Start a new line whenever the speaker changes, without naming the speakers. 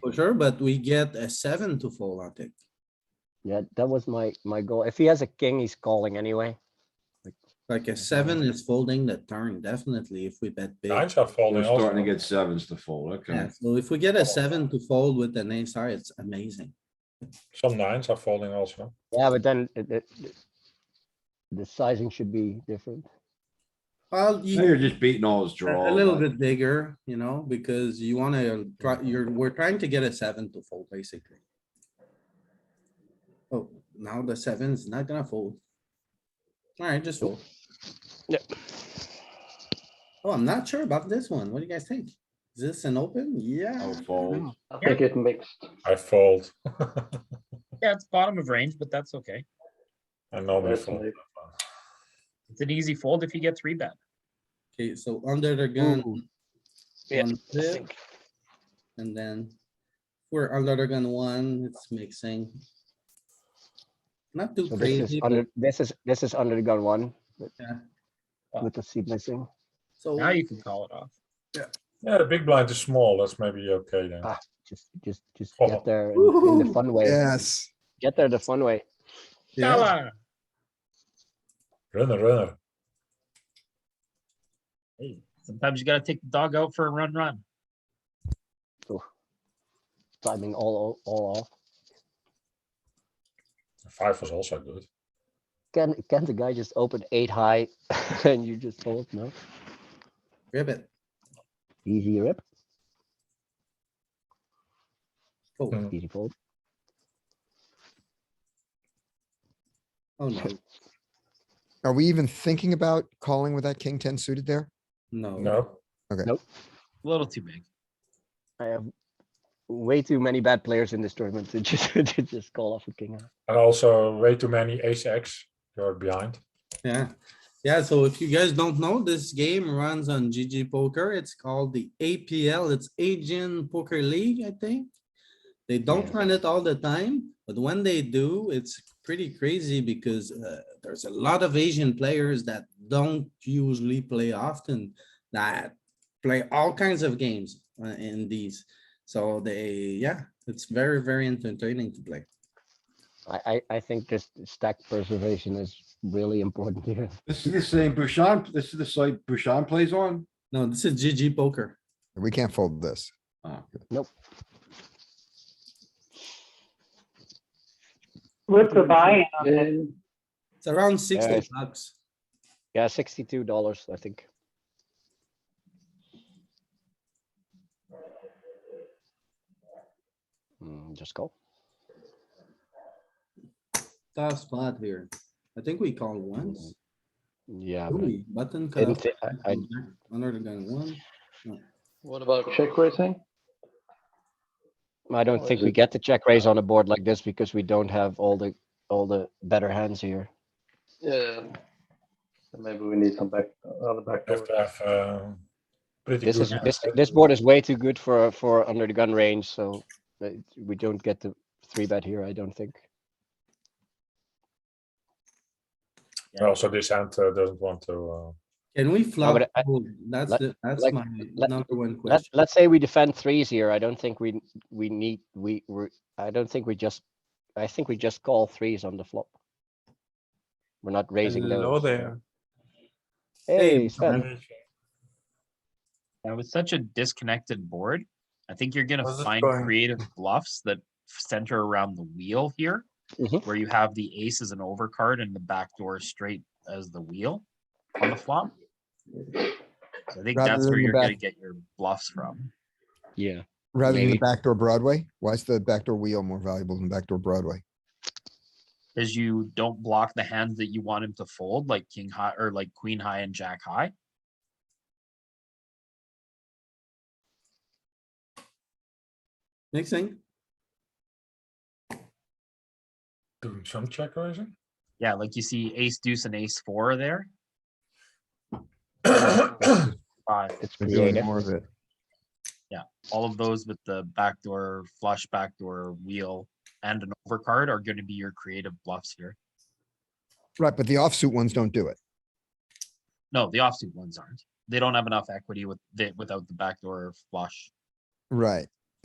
For sure, but we get a seven to fold, I think.
Yeah, that was my, my goal. If he has a king, he's calling anyway.
Like a seven is folding the turn, definitely, if we bet big.
Nines are
We're
folding also.
starting to get sevens to fold, okay.
Yeah, so if we get a seven to fold with an ace high, it's amazing.
Some nines are folding also.
Yeah, but then it, it, it- the sizing should be different.
Well, you
Now you're just beating all his
A
draws.
a little
like-
bit bigger, you know, because you wanna, try- you're, we're trying to get a seven to fold, basically. Oh, now the seven's not gonna fold. Alright, just fold.
Yep.
Oh, I'm not sure about this one. What do you guys think? Is this an open?
I'll
Yeah,
fold.
I think it mixed.
I fold.
Yeah, it's bottom of range, but that's okay.
I normally fold.
It's an easy fold if you get three bet.
okay, so under the gun.
Ooh. Yeah,
one pip, And then we're under the gun one, it's mixing. Not too
So this is
crazy, but
under, this is, this is under the gun one. but-
Yeah.
With the seat missing.
so.
Now you can call it off.
Yeah, the big blind is small. That's maybe okay then.
Ah. Just, just, just
Oh.
get there in- in the
Woohoo.
fun way.
Yes.
Get there the fun way.
Yeah.
Yalla.
Runner, runner.
Hey, sometimes you gotta take the dog out for a run, run.
Timing all, all- all off.
Five was also good.
Can, can the guy just open eight high and you just fold? No?
Ribbit.
Easy rip,
Oh,
Mm.
easy fold.
oh no,
Are we even thinking about calling with that king ten suited there?
no.
Mm.
No,
A little too big.
I have way too many bad players in this tournament to just, to just call off a king. high.
and also way too many ace X. You're behind.
Yeah, yeah, so if you guys don't know, this game runs on GG Poker, it's called the APL, it's Asian Poker League, I think. They don't
Yeah.
run it all the time, but when they do, it's pretty crazy because uh, there's a lot of Asian players that don't usually play often. That play all kinds of games uh, in these, so they, yeah, it's very, very entertaining to play.
I, I, I think this stack preservation is really important here.
This is the same Bouchon, this is the site Bouchon plays on?
No, this is GG Poker.
We can't fold this.
Oh,
What's the buy-in on this?
It's around sixty
it's-
bucks.
Yeah, sixty-two dollars, I think. Mm, Just call.
tough spot here. I think we call once.
Yeah.
Do
but I
we? Button
didn't
cutoff.
thi- I, I,
Under the gun one.
What about check raising?
I don't think we get the check raise on a board like this because we don't have all the, all the better hands here.
Yeah. So Maybe we need some back, other back.
You have to have um, pretty
This
good
is, this,
hands.
this board is way too good for, for under the gun range, so uh, we don't get the three bet here, I don't think.
And also this hand uh, doesn't want to. Uh,
Can we flop?
but I-
fold? That's,
let-
the- that's
like-
my
let-
number one
Let's,
question.
let's say we defend threes here. I don't think we, we need, we, we, I don't think we just, I think we just call threes on the flop. We're not raising those. Hey, Sven,
Now with such a disconnected board, I think you're gonna
How's this
find
going?
creative bluffs that center around the wheel here.
Mhm.
Where you have the ace as an overcard and the back door straight as the wheel on the flop. So I think
Rather
that's
than
where
the
you're
back-
gonna get your bluffs from.
yeah,
Rather than the
Maybe.
backdoor Broadway, why is the backdoor wheel more valuable than backdoor Broadway?
Cause you don't block the hands that you want him to fold, like king high or like queen high and jack high.
Mixing.
doing some check raising.
Yeah, like you see ace deuce and ace four there. Five,
it's
We're doing
creative.
More of it.
all of those with the backdoor flush, backdoor wheel and an overcard are gonna be your creative bluffs here.
Right, but the offsuit ones don't do it.
No, the offsuit ones aren't. They don't have enough equity with, the- without the backdoor flush.
Right,